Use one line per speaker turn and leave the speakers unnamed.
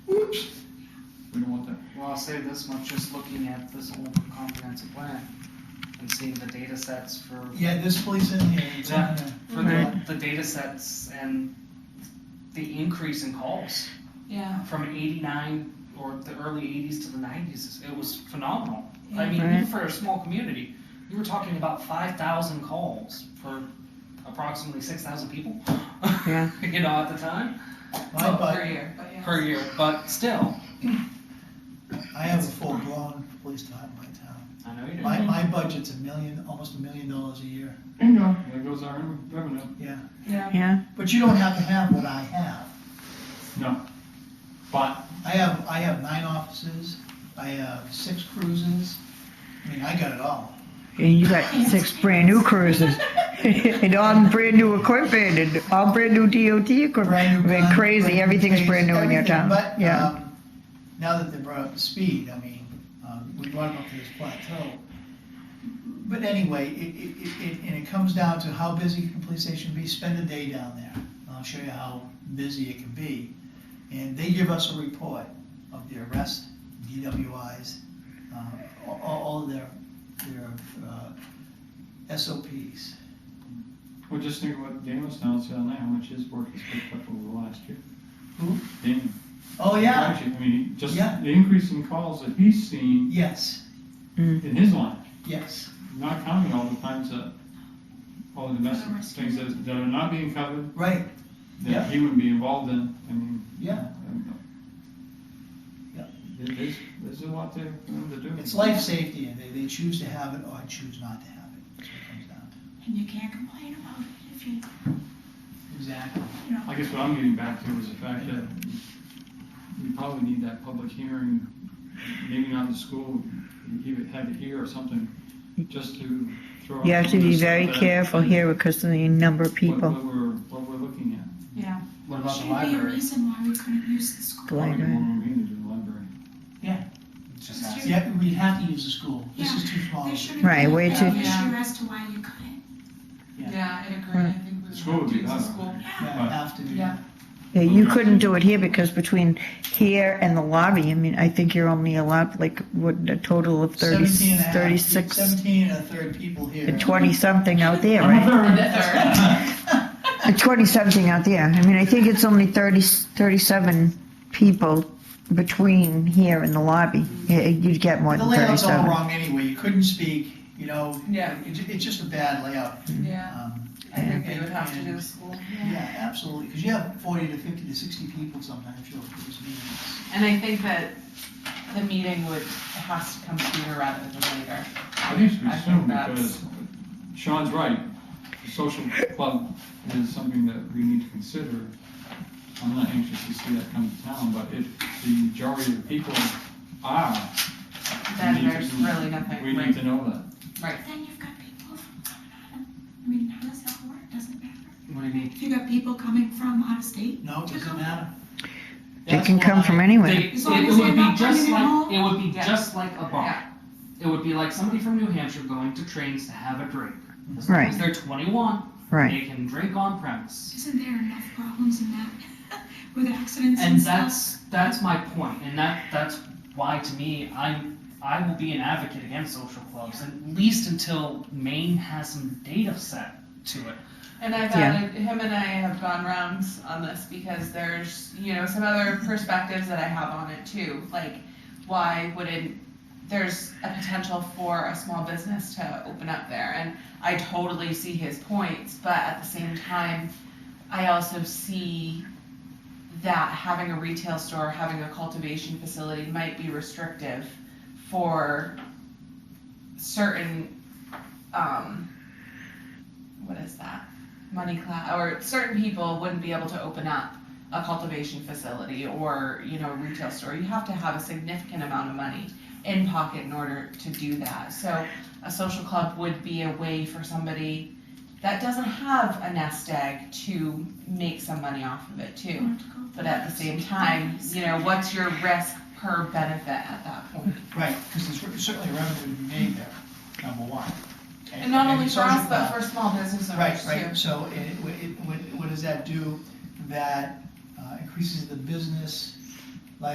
Well, I'll say this much, just looking at this older comprehensive plan and seeing the data sets for,
Yeah, this police in here, it's in there.
for the, the data sets and the increase in calls
Yeah,
from eighty-nine or the early eighties to the nineties, it was phenomenal. I mean,
Right.
even for a small community, you were talking about five thousand calls for approximately six thousand people.
Yeah.
You know, at the time,
My
Oh,
per
butt,
year, but yeah.
per year, but still,
I have a full-blown police department in my town.
I know you do.
My, my budget's a million, almost a million dollars a year,
I know. There goes our revenue.
yeah.
Yeah,
Yeah.
But you don't have to have what I have.
But
I have, I have nine offices, I have six cruises, I mean, I got it all.
And you got six brand new cruises and all brand new equipment and all brand new DOT equipment.
Brand new
I mean,
gun,
crazy.
brand new
Everything's
case,
brand new in your
everything.
town.
But,
yeah.
um, now that they brought up the speed, I mean, um, we brought them up to this plateau. But anyway, it, it, it, it- and it comes down to how busy can a police station be, spend a day down there. And I'll show you how busy it can be. And they give us a report of the arrest, DWIs, uh, all, all of their, their, uh, SOPs.
well, just think what Dan was announcing on that, how much his work has picked up over the last year.
Who?
Dan.
Oh, yeah,
Actually, I mean, just
Yeah.
the increase in calls that he's seen
yes,
Mm.
in his line,
yes.
not counting all the times that, all the domestic things that, that are not being covered,
Right, Yeah.
that he wouldn't be involved in, I mean.
yeah.
I don't know.
Yeah.
There- There's, there's a lot there for them to do.
It's life safety, and they, they choose to have it or choose not to have it. That's what it comes down
And you can't complain about it if you,
to. Exactly.
I guess what I'm getting back to is the fact that we probably need that public hearing, maybe not in school, you would have it here or something, just to throw. out
you have to be
some
very
of the stuff that-
careful here because of the number of
What
people.
what we're, what we're looking at.
yeah.
What
there
about the
should be a
library?
reason why we couldn't use the school.
Library.
Probably more meetings in the library.
It's just asking.
Yeah, we have to use the school. This is too small.
There shouldn't
Right,
be
way
an
too-
issue as to why you couldn't.
Yeah.
Yeah, I agree, I think we would
School would
have to
be
use the
better.
school.
Yeah,
Yeah, have to do that.
Yeah, you couldn't do it here because between here and the lobby, I mean, I think you're only allowed like what a total of 30,
17 and a half-
36
Seventeen and a third people here.
and 20 something out there,
I'm a
right?
third.
Uh, 20 something out there. I mean, I think it's only 30, 37 people between here and the lobby. Yeah, You'd get more
The
than
layout's all
37.
wrong anyway. You couldn't speak, you know.
Yeah.
It's, it's just a bad layout.
Yeah,
Um,
I think they would have to do the school.
yeah, absolutely. Because you have forty to fifty to sixty people sometimes, you'll, those meetings.
And I think that the meeting would, it has to come sooner rather than later.
I think it should be
I think
soon
that's-
because Sean's right. The social club is something that we need to consider. I'm not anxious to see that come to town, but if the majority of the people are,
Then
need to
there's
do-
really nothing,
we
right?
need to know that.
but then you've got people from coming out of, I mean, how does that work? Doesn't matter.
What do you mean?
If you got people coming from out of state,
No, it doesn't matter.
They
That's
can come
why-
from anywhere.
They,
As
it
long as
would
they're
be
not
just
running at
like,
home.
it would be
Yeah.
just like a
Yeah.
bar. It would be like somebody from New Hampshire going to trains to have a drink. As long
Right.
as they're twenty-one,
Right.
they can drink on premise.
isn't there enough problems in that with accidents
And
and stuff?
that's, that's my point, and that, that's why to me, I'm, I will be an advocate against social clubs, at least until Maine has some data set to it.
And I've
Yeah.
added, him and I have gone rounds on this because there's, you know, some other perspectives that I have on it too. Like, why wouldn't, there's a potential for a small business to open up there. And I totally see his points, but at the same time, I also see that having a retail store, having a cultivation facility might be restrictive for certain, um, what is that? Money class, or certain people wouldn't be able to open up a cultivation facility or, you know, a retail store. You have to have a significant amount of money in pocket in order to do that. So a social club would be a way for somebody that doesn't have a nest egg to make some money off of it too. But at the same time, you know, what's your risk per benefit at that point?
Right, because there's re- certainly revenue to be made there, number one.
And not only for us,
social-
but for small business owners
Right,
too.
right, so it, it, what- it- what, what does that do? That uh, increases the business